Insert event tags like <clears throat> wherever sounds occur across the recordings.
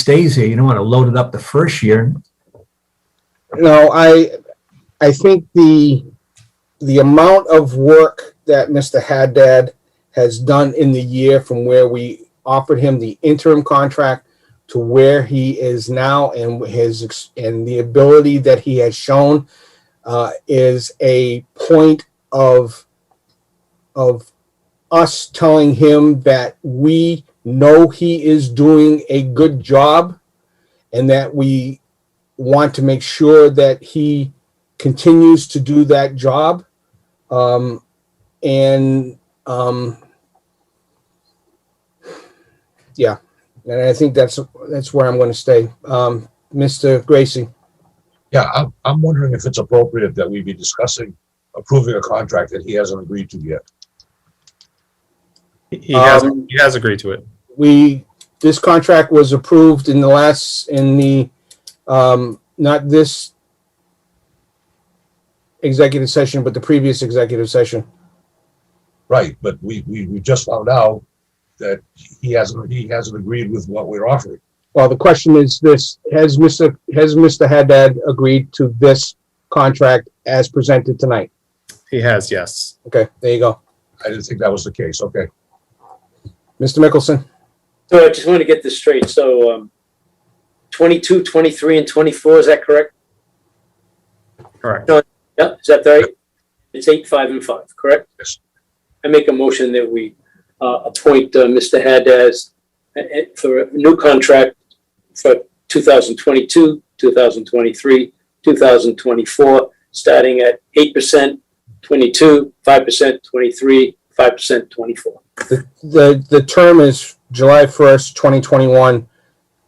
stays here. You don't want to load it up the first year. No, I, I think the, the amount of work that Mr. Haddad has done in the year from where we offered him the interim contract to where he is now and his, ex- and the ability that he has shown uh, is a point of, of us telling him that we know he is doing a good job and that we want to make sure that he continues to do that job. Um, and um, yeah, and I think that's that's where I'm going to stay, um, Mr. Gracie. Yeah, I'm, I'm wondering if it's appropriate that we be discussing approving a contract that he hasn't agreed to yet. He- He has, Um, he has agreed to it. We this contract was approved in the last in the um, not this executive session, but the previous executive session. Right, but we, we, we just found out that he hasn't, he hasn't agreed with what we're offering. Well, the question is this, has Mr. has Mr. Haddad agreed to this contract as presented tonight? He has, yes. Okay, there you go. I didn't think that was the case, okay. Mr. Mickelson, So I just want to get this straight. So um, 22, 23, and 24, is that correct? Correct. Yep, is that right? It's 8, 5, and 5, correct? Yes. I make a motion that we uh, appoint uh, Mr. Haddad uh, uh, for a new contract for 2022, 2023, 2024, starting at 8%, 22, 5%, 23, 5%, 24. the, the term is July first, twenty twenty-one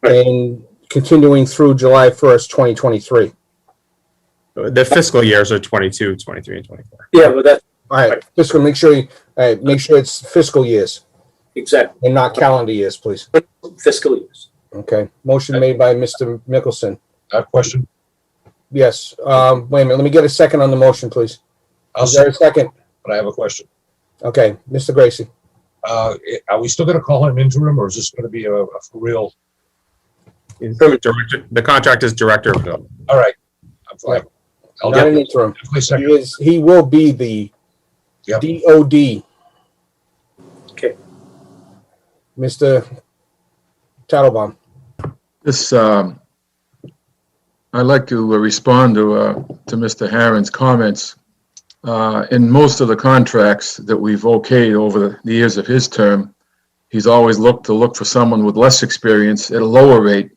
and continuing through July first, twenty twenty-three. The fiscal years are 22, 23, and 24. Yeah, well, that's All right, fiscal, make sure you, all right, make sure it's fiscal years exactly and not calendar years, please. fiscal years. Okay, motion made by Mr. Mickelson. I have a question. Yes, um, wait a minute, let me get a second on the motion, please. I'll, Is there say, a second? but I have a question. Okay, Mr. Gracie. Uh, i- are we still gonna call him interim or is this gonna be a, a for real? He's director- The contract is director of development. All right. I'm fine. I'll Not an definitely interim. He second. is, he will be the Yep. DOD. Okay. Mr. Tattelbaum, This, um, I'd like to uh, respond to, uh, to Mr. Harron's comments. Uh, in most of the contracts that we've okayed over the- the years of his term, he's always looked to look for someone with less experience at a lower rate.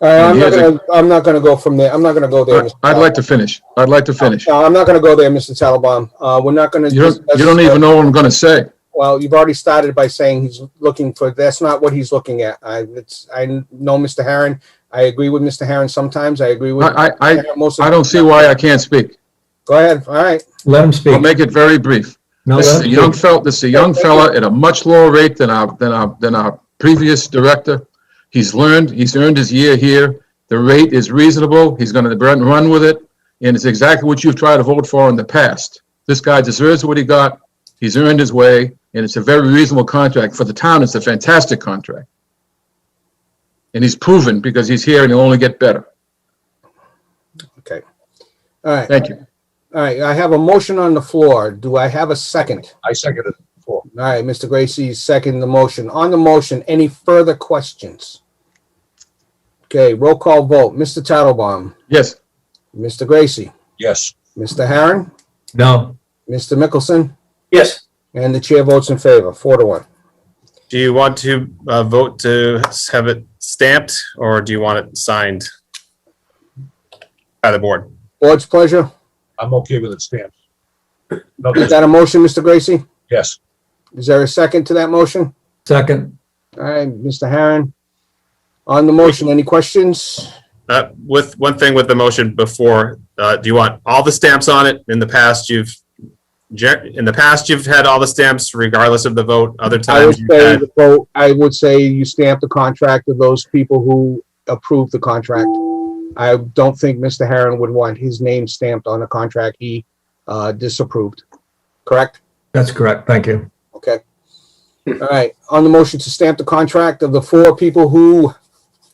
All right, Uh, I'm he not has a- gonna, I'm not gonna go from there, I'm not gonna go there. Mr. I'd like to Tattelbaum. finish. I'd like to finish. No, I'm not gonna go there, Mr. Tattelbaum, uh, we're not gonna. You don't, discuss- you don't even know what I'm gonna say. Well, you've already started by saying he's looking for, that's not what he's looking at, I, it's, I know Mr. Harron, I agree with Mr. Harron sometimes, I agree with. I, I, I, most of I the- don't see why I can't speak. Go ahead, all right, Let him I'll speak. make it very brief. No, This let is a him young speak. fella, this is a young fella at a much lower rate than our, than our, than our previous director. He's learned, he's earned his year here. The rate is reasonable. He's gonna run, run with it. And it's exactly what you've tried to vote for in the past. This guy deserves what he got. He's earned his way and it's a very reasonable contract. For the town, it's a fantastic contract. And he's proven because he's here and he'll only get better. all right, Thank you. all right, I have a motion on the floor, do I have a second? I seconded it before. All right, Mr. Gracie, second the motion. On the motion, any further questions? Okay, roll call vote. Mr. Tattelbaum, Yes, Mr. Gracie, Yes. Mr. Harron, No, Mr. Mickelson, Yes. and the chair votes in favor, four to one. Do you want to uh, vote to have it stamped or do you want it signed by the board? Board's pleasure. I'm okay with it stamped. <clears throat> No, Is that a motion, Mr. Gracie? yes. Is there a second to that motion? second. All right, Mr. Harron. On the motion, any questions? Uh, With, one thing with the motion before, uh, do you want all the stamps on it? In the past, you've, gen- in the past, you've had all the stamps regardless of the vote. Other I would times, you've say had, the vote, I would say you stamp the contract of those people who approve the contract. I don't think Mr. Harron would want his name stamped on a contract he uh, disapproved. Correct? That's correct. Thank you. Okay. All right, on the motion to stamp the contract of the four people who